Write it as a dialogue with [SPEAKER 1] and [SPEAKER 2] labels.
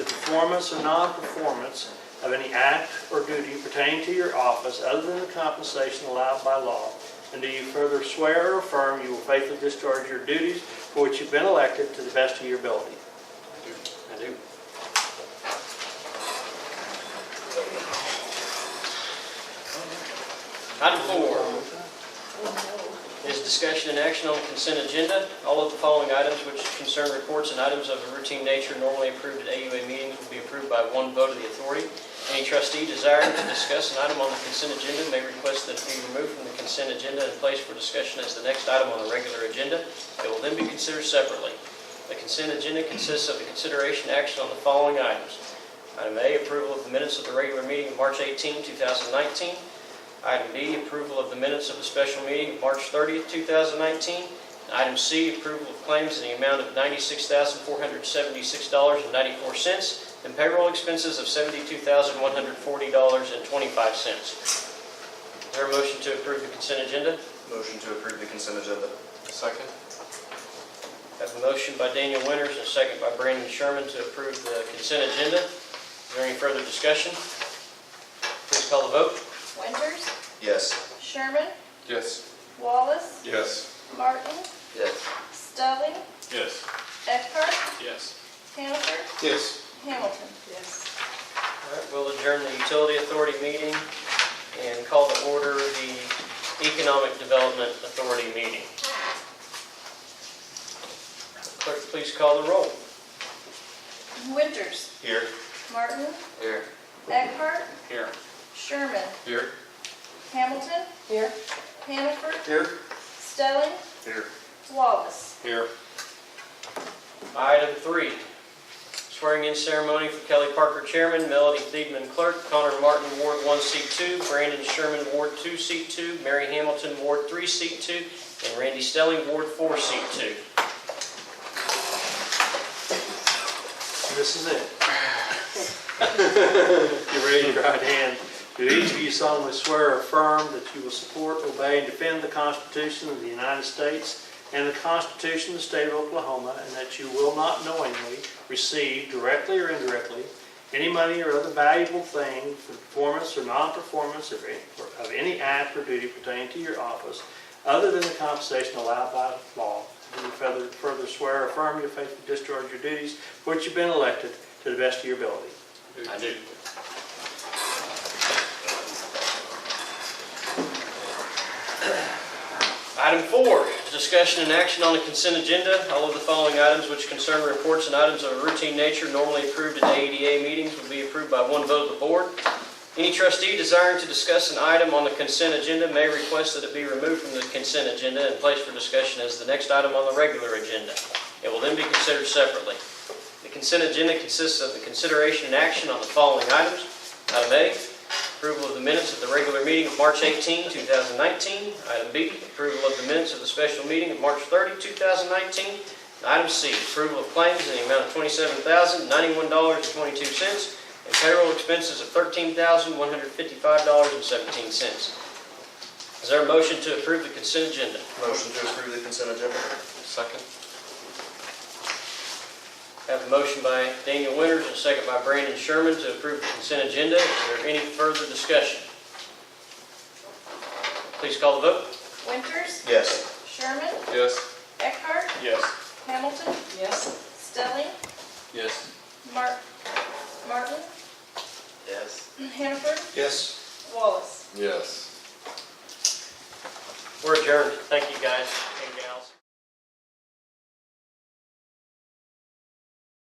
[SPEAKER 1] performance or non-performance of any act or duty pertaining to your office other than the compensation allowed by law. And do you further swear or affirm you will faithfully discharge your duties for which you've been elected to the best of your ability? I do.
[SPEAKER 2] Item four is discussion and action on consent agenda. All of the following items which concern reports and items of a routine nature normally approved at AUA meetings will be approved by one vote of the authority. Any trustee desiring to discuss an item on the consent agenda may request that it be removed from the consent agenda and placed for discussion as the next item on the regular agenda. It will then be considered separately. The consent agenda consists of the consideration action on the following items. Item A, approval of the minutes of the regular meeting of March 18, 2019. Item B, approval of the minutes of the special meeting of March 30th, 2019. And Item C, approval of claims in the amount of $96,476.94 and payroll expenses of $72,140.25. Is there a motion to approve the consent agenda?
[SPEAKER 3] Motion to approve the consent agenda. Second.
[SPEAKER 2] I Have a motion by Daniel Winters and a second by Brandon Sherman to approve the consent agenda. Is there any further discussion? Please call the vote.
[SPEAKER 4] Winters,
[SPEAKER 3] Yes.
[SPEAKER 4] Sherman,
[SPEAKER 3] Yes.
[SPEAKER 4] Wallace,
[SPEAKER 3] Yes.
[SPEAKER 4] Martin,
[SPEAKER 3] Yes.
[SPEAKER 4] Stelling,
[SPEAKER 3] Yes.
[SPEAKER 4] Eckhart,
[SPEAKER 3] Yes.
[SPEAKER 4] Hanover,
[SPEAKER 3] Yes.
[SPEAKER 4] Hamilton. Yes.
[SPEAKER 2] All right, we'll adjourn the utility authority meeting and call to order the economic development authority meeting. Clerk, please call the roll.
[SPEAKER 4] Winters,
[SPEAKER 3] Here.
[SPEAKER 4] Martin,
[SPEAKER 3] Here.
[SPEAKER 4] Eckhart,
[SPEAKER 3] Here.
[SPEAKER 4] Sherman,
[SPEAKER 3] Here.
[SPEAKER 4] Hamilton. Here. Hanover,
[SPEAKER 3] Here.
[SPEAKER 4] Stelling,
[SPEAKER 3] Here.
[SPEAKER 4] Wallace.
[SPEAKER 3] Here.
[SPEAKER 2] Item three, swearing in ceremony for Kelly Parker Chairman, Melody Thiedman Clerk, Connor Martin Ward 1C2, Brandon Sherman Ward 2C2, Mary Hamilton Ward 3C2, and Randy Stelling Ward 4C2.
[SPEAKER 1] This is it. You raise your right hand. Do each of you solemnly swear or affirm that you will support, obey, and defend the Constitution of the United States and the Constitution of the State of Oklahoma, and that you will not knowingly receive, directly or indirectly, any money or other valuable thing for performance or non-performance of any- of any act or duty pertaining to your office, other than the compensation allowed by law? Do you further further swear or affirm you faithfully discharge your duties for which you've been elected to the best of your ability?
[SPEAKER 2] I do. Item four, discussion and action on the consent agenda. All of the following items which concern reports and items of a routine nature normally approved at AEDA meetings will be approved by one vote of the board. Any trustee desiring to discuss an item on the consent agenda may request that it be removed from the consent agenda and placed for discussion as the next item on the regular agenda. It will then be considered separately. The consent agenda consists of the consideration and action on the following items. Item A, approval of the minutes of the regular meeting of March 18, 2019. Item B, approval of the minutes of the special meeting of March 30, 2019. And Item C, approval of claims in the amount of $27,091.22 and payroll expenses of $13,155.17. Is there a motion to approve the consent agenda?
[SPEAKER 3] Motion to approve the consent agenda. Second.
[SPEAKER 2] Have a motion by Daniel Winters and a second by Brandon Sherman to approve the consent agenda. Is there any further discussion? Please call the vote.
[SPEAKER 4] Winters,
[SPEAKER 3] Yes.
[SPEAKER 4] Sherman,
[SPEAKER 3] Yes.
[SPEAKER 4] Eckhart,
[SPEAKER 3] Yes.
[SPEAKER 4] Hamilton. Yes. Stelling,
[SPEAKER 3] Yes.
[SPEAKER 4] Mar- Martin,
[SPEAKER 3] Yes.
[SPEAKER 4] Hanover,
[SPEAKER 3] Yes.
[SPEAKER 4] Wallace.
[SPEAKER 3] Yes.
[SPEAKER 2] We're adjourned. Thank you, guys and gals.